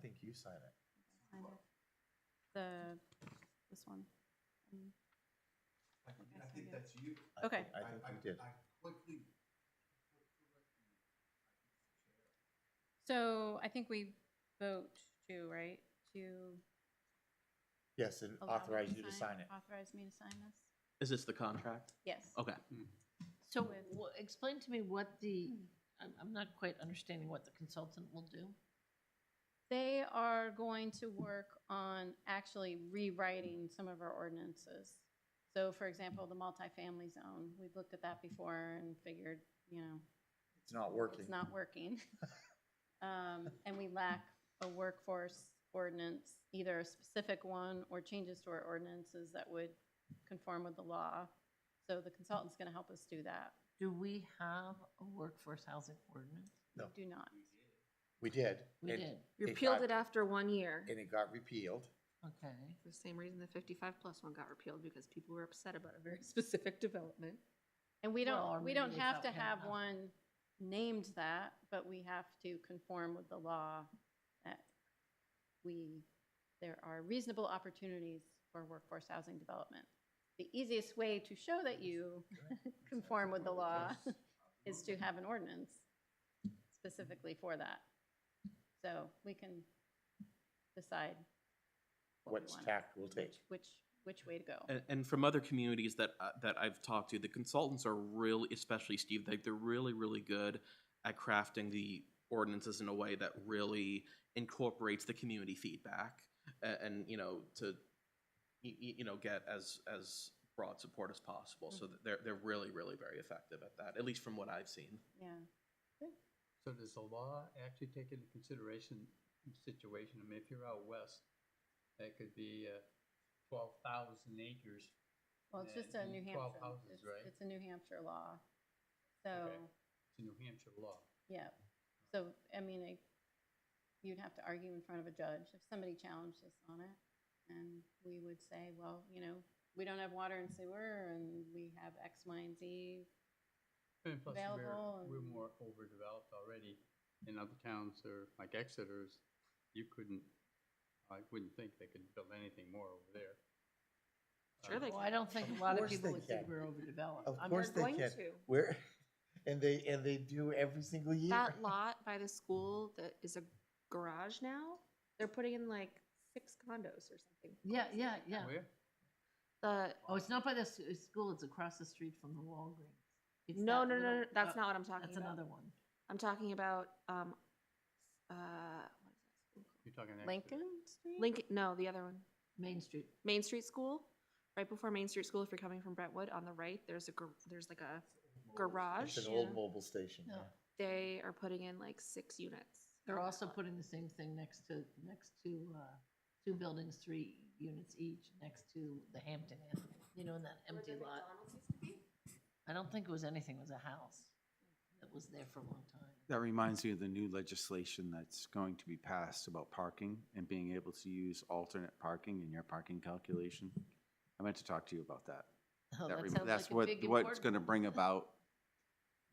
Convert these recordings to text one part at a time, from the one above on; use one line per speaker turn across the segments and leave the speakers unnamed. think you sign it.
Kind of. The, this one. Mm,
I think,
Okay,
I
so
think
yeah.
that's you.
I
Okay.
think- I think you did.
I quickly.
So I think we vote to, right, to
Yes, and
allow me to
authorize you to sign it.
Authorize me to sign this?
Is this the contract?
Yes.
Okay.
So
with-
wha- explain to me what the,
Hmm.
I'm, I'm not quite understanding what the consultant will do.
They are going to work on actually rewriting some of our ordinances. So for example, the multifamily zone, we've looked at that before and figured, you know,
It's not working.
it's not working. Um, And we lack a workforce ordinance, either a specific one or changes to our ordinances that would conform with the law. So the consultant's going to help us do that.
Do we have a workforce housing ordinance?
No.
Do not.
We did.
We
and-
did,
You
It
repealed
got-
it after one year.
And it got repealed.
okay.
For the same reason the fifty-five plus one got repealed, because people were upset about a very specific development.
And we
Well, or
don't, we don't
maybe
have to
without
have
having a-
one named that, but we have to conform with the law that we, there are reasonable opportunities for workforce housing development. The easiest way to show that you conform with the law is to have an ordinance specifically for that. So we can decide what
What
we want,
tact we'll take.
which, which, which way to go.
And, and from other communities that uh, that I've talked to, the consultants are really, especially Steve, they, they're really, really good at crafting the ordinances in a way that really incorporates the community feedback and, and you know to y- y- you know get as as broad support as possible. So that they're they're really, really very effective at that, at least from what I've seen.
Yeah.
So does the law actually take into consideration the situation? I mean, if you're out west, that could be uh, twelve thousand acres.
Well, it's
Yeah,
just a New
you need
Hampshire.
12 houses,
it's-
right?
It's a New Hampshire law. So,
Okay. It's a New Hampshire law.
yeah, so, I mean, it- you'd have to argue in front of a judge if somebody challenged us on it. And we would say, well, you know, we don't have water and sewer and we have X, Y, and Z.
And plus, we're,
Available
we're
and-
more overdeveloped already. In other towns or like Exeter's, you couldn't, I wouldn't think they could build anything more over there.
Sure they
Oh,
Uh,
Well, I don't think
Of
a lot of
course
people
they
would think
can.
we're overdeveloped.
Of
I'm
course
not
they
going
can.
to.
Where, and they, and they do every single year.
That lot by the school that is a garage now, they're putting in like six condos or something.
Yeah, yeah, yeah.
Where?
The,
Oh, it's not by the s- uh, school, it's across the street from the Walgreens. It's
no,
that
no, no,
little-
no, that's
oh,
not what I'm talking
That's
about.
another one.
I'm talking about, um, uh, what is that school called?
You're talking Exeter.
Lincoln Street?
Lincoln, no, the other one.
Main Street.
Main Street School, right before Main Street School, if you're coming from Brentwood, on the right, there's a, gar- there's like a garage.
It's an old mobile station.
No.
yeah.
They are putting in like six units.
They're also putting the same thing next to, next to, uh, two buildings, three units each, next to the Hampton Inn, you know, in that empty lot. I don't think it was anything, it was a house that was there for a long time.
That reminds me of the new legislation that's going to be passed about parking and being able to use alternate parking in your parking calculation. I meant to talk to you about that.
Oh,
That
that
rem-
sounds
That's
like a
what,
big
what's gonna
important-
bring about,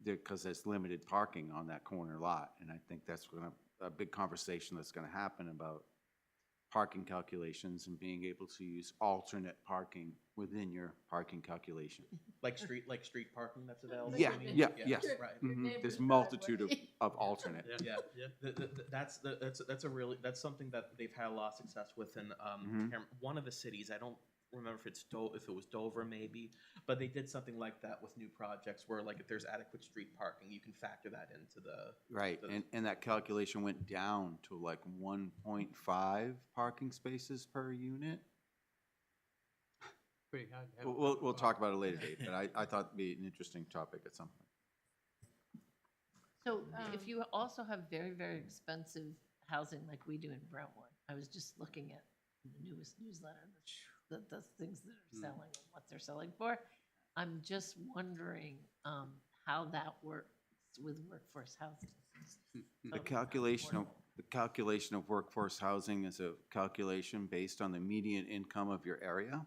because there's limited parking on that corner lot, and I think that's gonna, a big conversation that's gonna happen about parking calculations and being able to use alternate parking within your parking calculation.
Like street like street parking that's available.
Yeah,
you mean?
yeah, yes.
Right.
Your
Mhm.
neighbor's
There's
driveway.
multitude of, of alternate.
Yeah,
Yeah.
yeah.
Th th th that's the, that's that's a really that's something that they've had a lot of success with in um,
Mhm.
Cam- one of the cities. I don't remember if it's Do- if it was Dover maybe, but they did something like that with new projects where like if there's adequate street parking, you can factor that into the
Right,
So-
and, and that calculation went down to like one point five parking spaces per unit?
Pretty hard to have
We'll,
a
we'll, we'll
parking
talk
lot.
about it later, Dave, but I, I thought it'd be an interesting topic at some point.
So
Um,
if you also have very, very expensive housing like we do in Brentwood, I was just looking at the newest newsletter, the, the, the things that are
Mm.
Hmm.
selling and what they're selling for. I'm just wondering, um, how that works with workforce housing.
Hmm, The calculation of, the calculation of workforce housing is a calculation based on the median income of your area.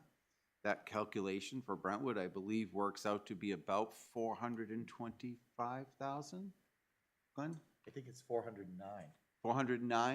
That calculation for Brentwood, I believe, works out to be about four hundred and twenty-five thousand? Glenn,
I think it's four hundred and nine.
four hundred and nine?